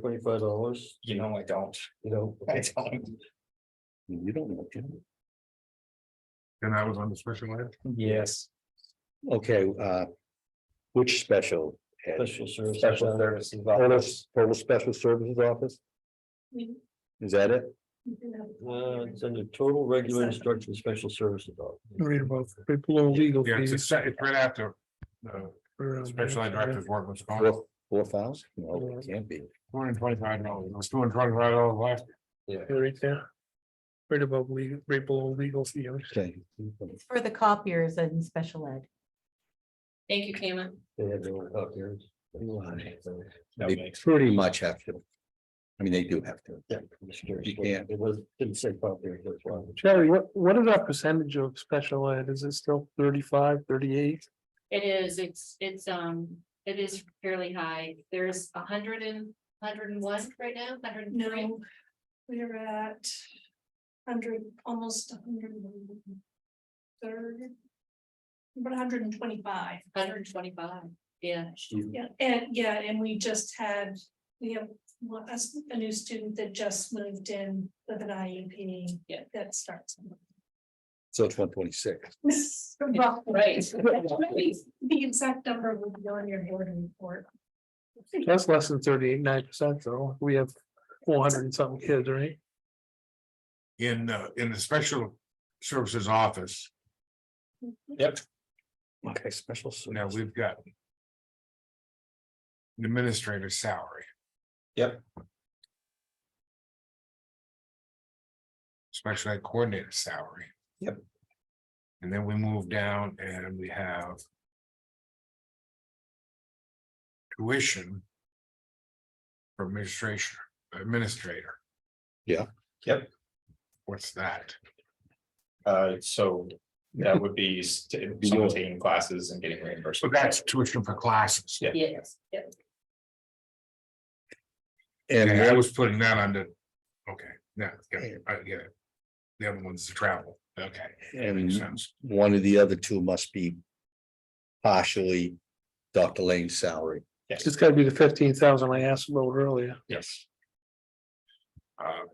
twenty-five dollars, You know, I don't, you know? I don't, You don't know. Jim. And that was on the special ed? yes, Okay, uh. Which special? head? Special Uh, service. special services. Total, office. total special services office? Mhm. Is that it? Uh, it's under total regulated structure, and special services. office. Read about people or legal Yeah, it's, a fees. se- it's right after the for, um, special ed director's work was gone. Four, four thousand? No, it can't be. Two hundred and twenty-five dollars, it was two hundred and twenty-five dollars last. year. Yeah, Right there. Right above legal, right below legal fees. Okay. It's for the copiers and special ed. Thank you, Kama. They have their own copiers. That They makes- pretty much have to. I mean, they do have to. Yeah, I'm just curious. You can't. It was, didn't say copiers, that's why. Sherry, what, what is our percentage of special ed? Is it still 35, 38? It is, it's, it's, um, it is fairly high. There's a hundred and, hundred and one right now, hundred and three. No, we're at hundred, almost hundred and third. About hundred and twenty-five. Hundred and twenty-five, yeah. Yeah, and yeah, and we just had, we have one, us- a new student that just moved in with an IEP. Yeah. That starts. in- So it's one twenty-six. Well, Right. The exact number will be on your board report. That's less than thirty-eight, nine percent though. We have four hundred and something kids, right? In, uh, in the special services office, Yep, Okay, special. now we've got. an Administrator's salary. Yep. Special ed coordinator salary. Yep. And then we move down and we have. Tuition. For administration, administrator. Yeah. Yep. What's that? uh, so that would be s- if someone taking classes and getting reimbursed. So that's tuition for classes. Yeah. Yes, yeah. And I And was putting that under, okay, now, I get it, I get it. The other one's the travel, okay. that makes And- sense. one of the other two must be. Partially Dr. Lane's salary. Yes, It's gotta be the fifteen thousand I asked about earlier. yes. Uh,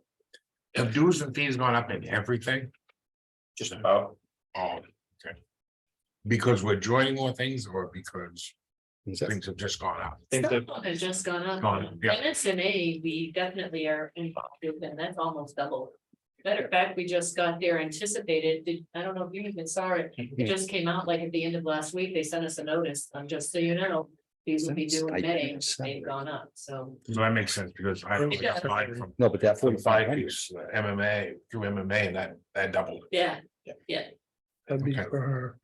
Have dues and fees gone up in everything? Just about, Oh, okay. Because we're joining more things or because Is that- things have just gone up? think that, Some Has just gone up. Gone, yeah. MSMA, we definitely are involved with, and that's almost double. Matter of fact, we just got there anticipated, Did- I don't know if you even saw it, it just came out like at the end of last week, they sent us a notice, um, just so you know. These will be due in May, they've gone up, so. So that makes sense because I It does. applied from No, but that forty-five forty-five hundred. years, MMA, through MMA, and that, that doubled. Yeah, That'd be Okay. for her.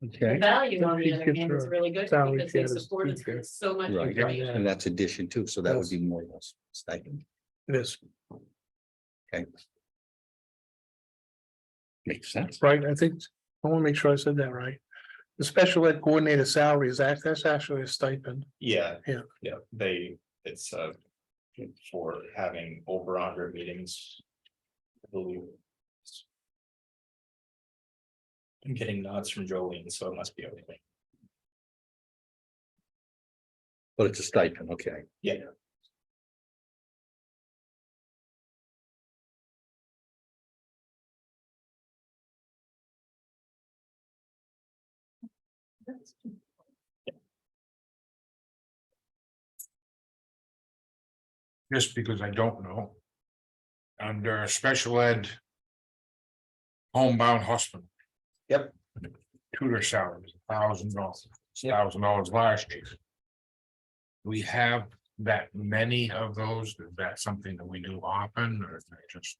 the Okay. value on the other hand is really good Salary because they shares, supported teacher. us so much. Right. Right. And that's addition too, so that would be more or less stipend. This, Okay. Makes sense. right? I think, I wanna make sure I said that right. The special ed coordinator salary is act, that's actually a stipend. yeah. Yeah. Yeah, they, it's uh for having over a hundred meetings. I believe. I'm getting nods from Jolene, so it must be okay. But it's a stipend, okay. Yeah. just because I don't know. Under special ed. Homebound hospital. Yep. Tutor salaries, thousand dollars, thousand dollars last year. We have that many of those, is that something that we do often, or is that just?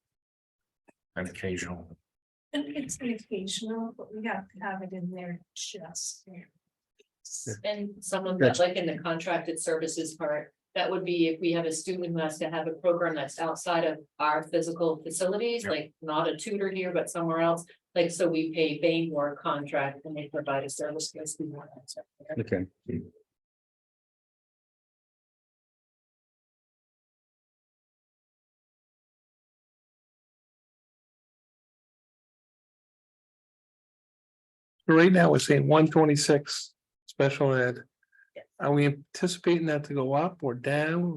An occasional, And it's an occasional, but we have to have it in there just. there. And some of that, like in the contracted services part, that would be if we have a student who has to have a program that's outside of our physical facilities, Yeah. like not a tutor here, but somewhere else. Like, so we pay Bainmore contract and they provide a service. for us. We want that. Okay. Right now, we're saying one twenty-six special ed. Yes. Are we anticipating that to go up or down